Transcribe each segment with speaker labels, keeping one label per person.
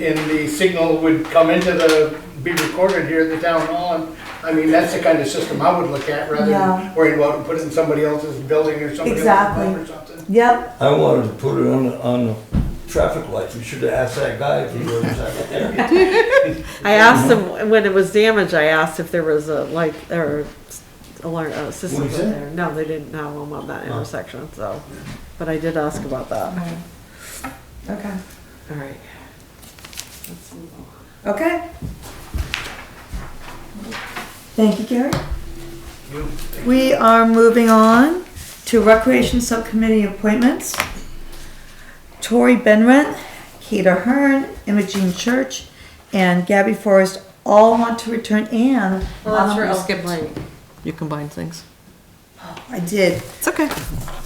Speaker 1: And the signal would come into the, be recorded here at the town hall. and, I mean, that's the kind of system I would look at rather
Speaker 2: Yeah.
Speaker 1: than worrying about and put it in somebody else's building or somebody else's
Speaker 2: Exactly.
Speaker 1: home or something.
Speaker 2: Yep,
Speaker 3: I wanted to put it on, the- on the traffic lights. We should have asked that guy if he was out there.
Speaker 4: I asked them when it was damaged. I asked if there was a light or s- alarm uh, system
Speaker 3: What
Speaker 4: in
Speaker 3: he said? Oh.
Speaker 4: there. No, they didn't have one on that intersection. So, but I did ask about that.
Speaker 2: okay,
Speaker 4: All right.
Speaker 2: okay. Thank you, Gary.
Speaker 1: You-
Speaker 2: We are moving on to Recreation Subcommittee appointments. Tori Benrent, Keita Hearn, Imogene Church, and Gabby Forrest all want to return, and.
Speaker 4: Oh,
Speaker 2: um,
Speaker 4: You combine things.
Speaker 2: I did,
Speaker 4: It's okay.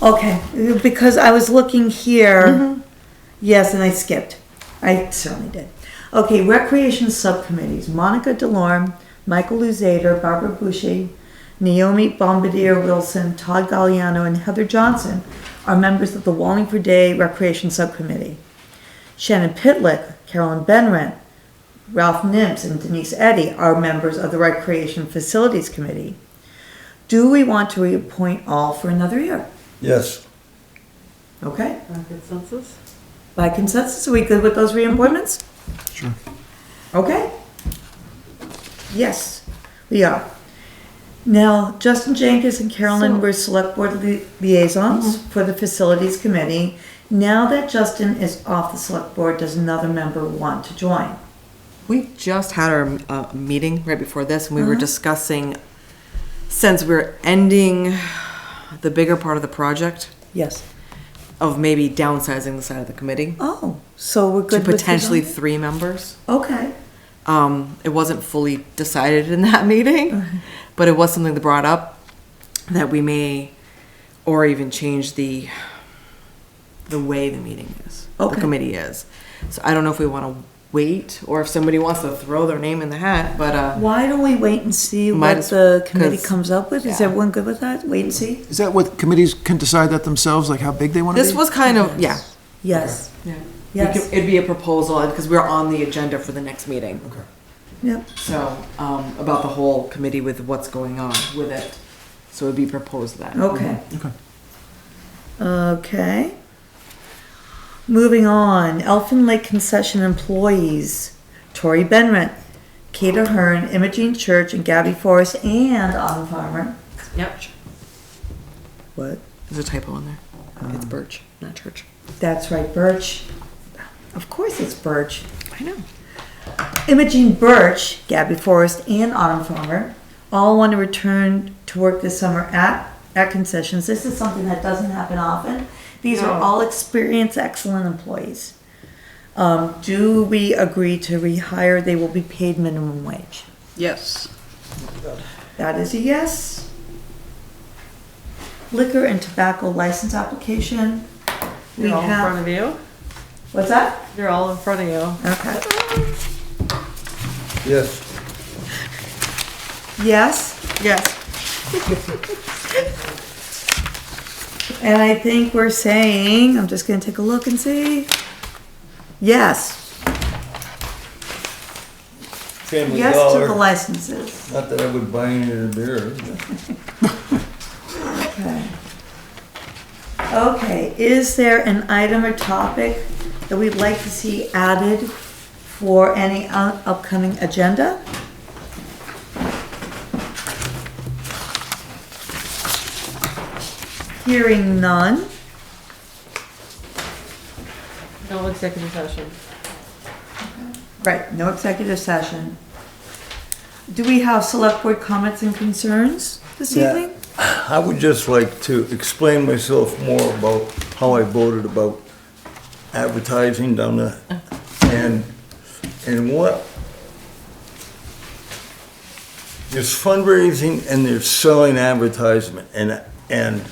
Speaker 2: okay, because I was looking here, yes, and I skipped. I certainly did. Okay, Recreation Subcommittees, Monica Delorme, Michael Luzader, Barbara Bushy, Naomi Bombardier Wilson, Todd Galliano, and Heather Johnson are members of the Wallingford Day Recreation Subcommittee. Shannon Pitlick, Carolyn Benrent, Ralph Nims, and Denise Eddy are members of the Recreation Facilities Committee. Do we want to reappoint all for another year?
Speaker 3: Yes,
Speaker 2: Okay,
Speaker 4: Consensus.
Speaker 2: by consensus, are we good with those reappointments? Sure. Okay. Yes, we are. Now, Justin Jenkins and Carolyn
Speaker 4: So-
Speaker 2: were select board li- liaisons
Speaker 5: Mm-hmm.
Speaker 2: for the facilities committee. Now that Justin is off the select board, does another member want to join?
Speaker 5: We just had our uh, meeting right before this, and we were
Speaker 2: Uh-huh.
Speaker 5: discussing, since we're ending the bigger part of the project,
Speaker 2: Yes.
Speaker 5: of maybe downsizing the side of the committee
Speaker 2: Oh, so we're
Speaker 5: to
Speaker 2: good with
Speaker 5: potentially
Speaker 2: Suzanne?
Speaker 5: three members.
Speaker 2: Okay,
Speaker 5: Um, It wasn't fully decided in that meeting, but it was something that brought up that we may, or even change the, the way the meeting is, the
Speaker 2: Okay.
Speaker 5: committee is. So I don't know if we want to wait, or if somebody wants to throw their name in the hat, but. uh,
Speaker 2: why don't we wait and see
Speaker 5: Might
Speaker 2: what
Speaker 5: as-
Speaker 2: the committee
Speaker 5: 'cause-
Speaker 2: comes up with? Is
Speaker 5: yeah.
Speaker 2: everyone good with that? Wait and see?
Speaker 6: Is that what committees can decide that themselves, like how big they want to be?
Speaker 5: This was kind of, yeah.
Speaker 2: Yes,
Speaker 5: Yeah.
Speaker 2: Yes.
Speaker 5: It'd be a proposal, because we're on the agenda for the next meeting,
Speaker 2: yep.
Speaker 5: so, um, about the whole committee with what's going on with it. So it'd be proposed that.
Speaker 2: Okay.
Speaker 6: Okay.
Speaker 2: Okay. Moving on, Elfin Lake Concession Employees, Tori Benrent, Kata Hearn, Imogene Church, and Gabby Forrest, and Autumn Farmer.
Speaker 5: Yep.
Speaker 2: What?
Speaker 5: There's a typo in there.
Speaker 2: Um,
Speaker 5: It's Birch, not Church.
Speaker 2: That's right, Birch. Of course it's Birch.
Speaker 5: I know.
Speaker 2: Imogene Birch, Gabby Forrest, and Autumn Farmer all want to return to work this summer at, at concessions. This is something that doesn't happen often. These are all experienced, excellent employees. Um, do we agree to rehire? They will be paid minimum wage.
Speaker 4: Yes.
Speaker 2: That is a yes. Liquor and tobacco license application. We
Speaker 4: They're all in front
Speaker 2: have,
Speaker 4: of you.
Speaker 2: what's that?
Speaker 4: They're all in front of you.
Speaker 2: Okay.
Speaker 3: yes.
Speaker 2: Yes?
Speaker 4: Yes.
Speaker 2: And I think we're saying, I'm just gonna take a look and see. Yes,
Speaker 3: Family
Speaker 2: yes to the
Speaker 3: Dollar.
Speaker 2: licenses.
Speaker 3: Not that I would buy any of their beer.
Speaker 2: Okay. Okay, is there an item or topic that we'd like to see added for any up- upcoming agenda? Hearing none.
Speaker 4: No executive session.
Speaker 2: Right, no executive session. Do we have select board comments and concerns this
Speaker 3: Yeah.
Speaker 2: evening?
Speaker 3: I would just like to explain myself more about how I voted about advertising down there
Speaker 2: Uh-huh.
Speaker 3: and, and what. There's fundraising and there's selling advertisement and, and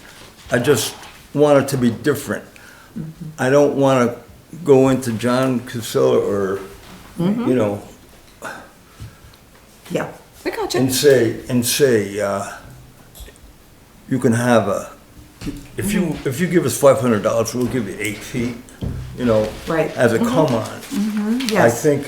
Speaker 3: I just want it to be different.
Speaker 2: Mm-hmm.
Speaker 3: I don't want to go into John Casella or,
Speaker 2: Mm-hmm.
Speaker 3: you know,
Speaker 2: Yeah.
Speaker 5: We got you.
Speaker 3: and say, and say, uh, you can have a, if you,
Speaker 2: Mm-hmm.
Speaker 3: if you give us five hundred dollars, we'll give you eight feet, you know?
Speaker 2: Right. Mm-hmm.
Speaker 3: As a come on. I
Speaker 2: Yes.
Speaker 3: think